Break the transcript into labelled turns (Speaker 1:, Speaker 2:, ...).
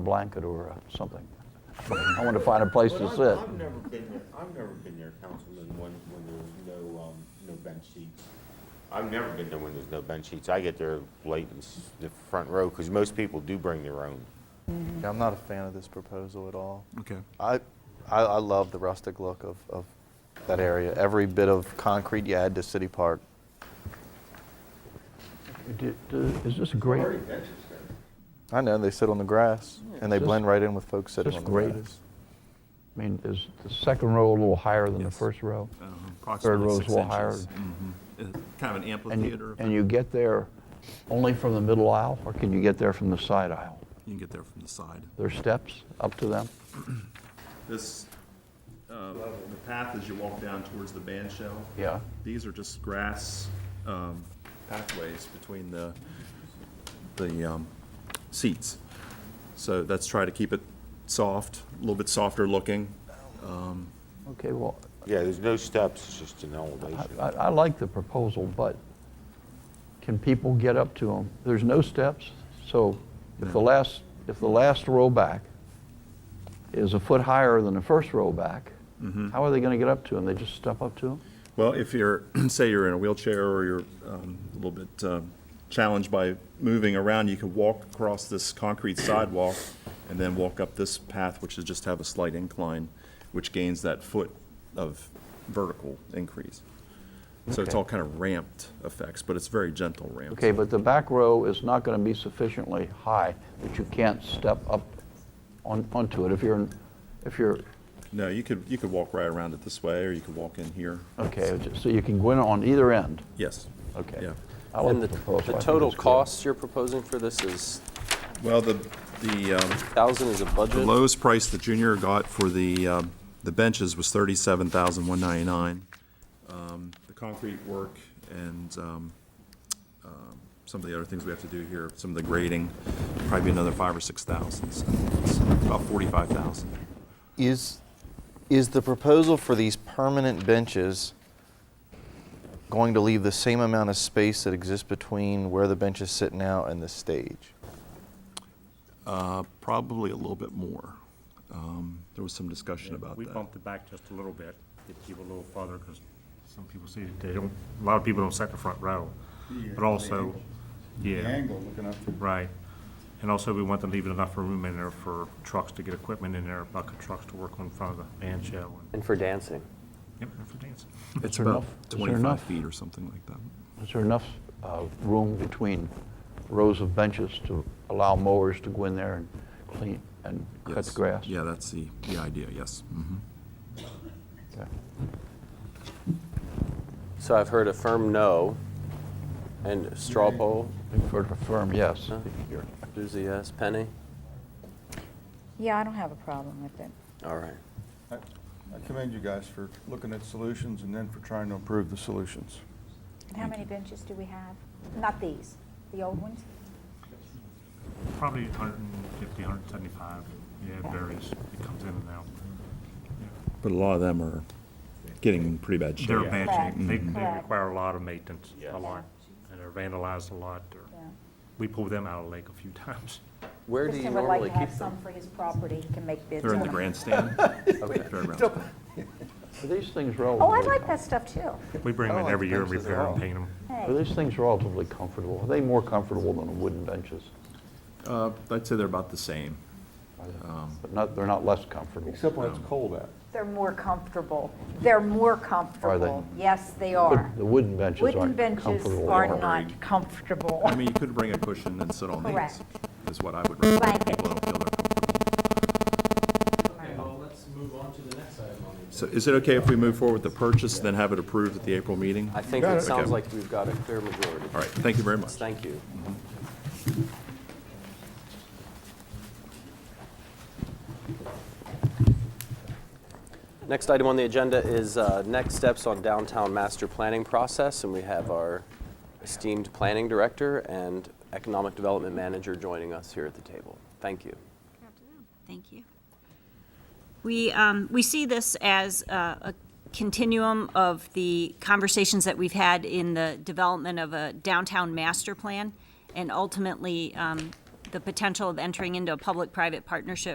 Speaker 1: blanket or uh, something. I want to find a place to
Speaker 2: But I've-
Speaker 1: sit.
Speaker 2: I've never been there, I've never been there, Councilman, when, when there was no, um, no bench seats. I've never been there when there's no bench seats. I get there late in s- the front row, because most people do bring their own.
Speaker 3: Yeah, I'm not a fan of this proposal at all.
Speaker 4: Okay.
Speaker 3: I, I, I love the rustic look of, of that area. Every bit of concrete you add to City Park.
Speaker 1: Did, uh, Is this great?
Speaker 3: I know they sit on the grass and they
Speaker 1: Just-
Speaker 3: blend right in with folks sitting on
Speaker 1: just
Speaker 3: the
Speaker 1: great.
Speaker 3: grass.
Speaker 1: I mean, is the second row a little higher than the
Speaker 4: Yes.
Speaker 1: first row?
Speaker 4: Uh, Approximately
Speaker 1: row's
Speaker 4: six
Speaker 1: a little higher.
Speaker 4: inches. Mhm. It's Kind of an
Speaker 1: And
Speaker 4: amphitheater.
Speaker 1: you,
Speaker 4: if
Speaker 1: and
Speaker 4: I-
Speaker 1: you get there only from the middle aisle, or can you get there from the side aisle?
Speaker 4: You can get there from the side.
Speaker 1: There's steps up to them?
Speaker 4: This, uh, the path as you walk down towards the band shell.
Speaker 1: Yeah.
Speaker 4: These are just grass um, pathways between the, the um, seats. So that's try to keep it soft, a little bit softer looking.
Speaker 1: Okay, well,
Speaker 2: Yeah, there's no steps, it's just an
Speaker 1: I,
Speaker 2: elevation.
Speaker 1: I I like the proposal, but can people get up to them? There's no steps, so if the last, if the last row back is a foot higher than the first row back, how are they gonna get up to them? They just step up to them?
Speaker 4: Well, if you're, say you're in a wheelchair or you're um, a little bit um, challenged by moving around, you could walk across this concrete sidewalk and then walk up this path, which is just have a slight incline, which gains that foot of vertical increase. So it's
Speaker 1: Okay.
Speaker 4: all kind of ramped effects, but it's very gentle ramps.
Speaker 1: Okay, but the back row is not gonna be sufficiently high that you can't step up on, onto it if you're, in- if you're,
Speaker 4: No, you could, you could walk right around it this way, or you could walk in here.
Speaker 1: okay, so you can go in on either end,
Speaker 4: Yes.
Speaker 1: Oh. okay.
Speaker 4: Yeah.
Speaker 1: I like
Speaker 5: And
Speaker 1: the
Speaker 5: the,
Speaker 1: proposal. I
Speaker 5: the
Speaker 1: think
Speaker 5: total
Speaker 1: it's good.
Speaker 5: cost you're proposing for this is,
Speaker 4: Well, the, the, um,
Speaker 5: thousand is a
Speaker 4: The
Speaker 5: budget?
Speaker 4: lowest price the junior got for the, um, the benches was thirty-seven thousand one ninety-nine. Um, the concrete work and, um, um, some of the other things we have to do here, some of the grading, probably another five or six thousand, so it's about forty-five thousand.
Speaker 3: Is, is the proposal for these permanent benches going to leave the same amount of space that exists between where the benches sit now and the stage?
Speaker 4: Uh, Probably a little bit more. Um, there was some discussion about
Speaker 6: We
Speaker 4: that.
Speaker 6: bumped it back just a little bit, get people a little farther, because some people see, they don't, a lot of people don't set the front row. But also, yeah,
Speaker 7: angle looking up to
Speaker 6: right. And also, we want to leave enough room in there for trucks to get equipment in there, bucket trucks to work on front of the band shell and,
Speaker 5: And for dancing.
Speaker 6: yep, and for dancing.
Speaker 4: It's
Speaker 1: there
Speaker 4: about
Speaker 1: enough- is there
Speaker 4: twenty-five
Speaker 1: enough?
Speaker 4: feet or something like that.
Speaker 1: Is there enough uh, room between rows of benches to allow mowers to go in there and clean and cut
Speaker 4: Yes.
Speaker 1: the grass?
Speaker 4: Yeah, that's the, the idea, yes. Mhm.
Speaker 1: Okay.
Speaker 5: So I've heard a firm no, and straw poll,
Speaker 1: For the firm, yes.
Speaker 5: No. Susie, yes, Penny?
Speaker 8: Yeah, I don't have a problem with it.
Speaker 5: All right.
Speaker 7: I I commend you guys for looking at solutions and then for trying to improve the solutions.
Speaker 8: And how many benches do we have? Not these, the old ones?
Speaker 6: Probably 150, 175, yeah, it varies, it comes in and out.
Speaker 4: But a lot of them are getting in pretty bad shape.
Speaker 6: They're bad shape, they, they
Speaker 8: Correct.
Speaker 6: require a lot of maintenance, a lot, and they're vandalized a lot, or,
Speaker 8: Yeah.
Speaker 6: we pulled them out of the lake a few times.
Speaker 5: Where do you
Speaker 8: Kristen would like
Speaker 5: normally
Speaker 8: to
Speaker 5: keep
Speaker 8: have
Speaker 5: them?
Speaker 8: some for his property, he can make bids.
Speaker 4: They're in the
Speaker 8: on it.
Speaker 4: grandstand. Fairgrounds.
Speaker 1: Are these things relatively?
Speaker 8: Oh, I like that stuff too.
Speaker 6: We bring them in every year and
Speaker 3: benches at
Speaker 6: repair
Speaker 3: all.
Speaker 6: and paint them.
Speaker 1: Are
Speaker 8: Hey,
Speaker 1: these things relatively comfortable? Are they more comfortable than the wooden benches?
Speaker 4: Uh, I'd say they're about the same.
Speaker 1: But not, they're not less comfortable.
Speaker 7: Except when it's cold out.
Speaker 8: they're more comfortable. They're more comfortable. Yes, they are.
Speaker 1: But the wooden benches
Speaker 8: Wooden
Speaker 1: aren't
Speaker 8: benches
Speaker 1: comfortable.
Speaker 8: are
Speaker 1: at all.
Speaker 8: not comfortable.
Speaker 4: I mean, you could bring a cushion and sit on these,
Speaker 8: Correct.
Speaker 4: is what I would recommend.
Speaker 8: Blanket.
Speaker 4: People don't feel they're comfortable.
Speaker 9: Okay, well, let's move on to the next item on the
Speaker 4: So is it okay if we move forward with the purchase, then have it approved at the April meeting?
Speaker 5: I
Speaker 4: All
Speaker 5: think it sounds
Speaker 4: Okay.
Speaker 5: like we've got a clear majority.
Speaker 4: right, thank you very much.
Speaker 5: Thank you. Next item on the agenda is uh, next steps on downtown master planning process, and we have our esteemed planning director and economic development manager joining us here at the table. Thank you.
Speaker 10: Thank you. We, um, we see this as uh, a continuum of the conversations that we've had in the development of a downtown master plan and ultimately um, the potential of entering into a public-private partnership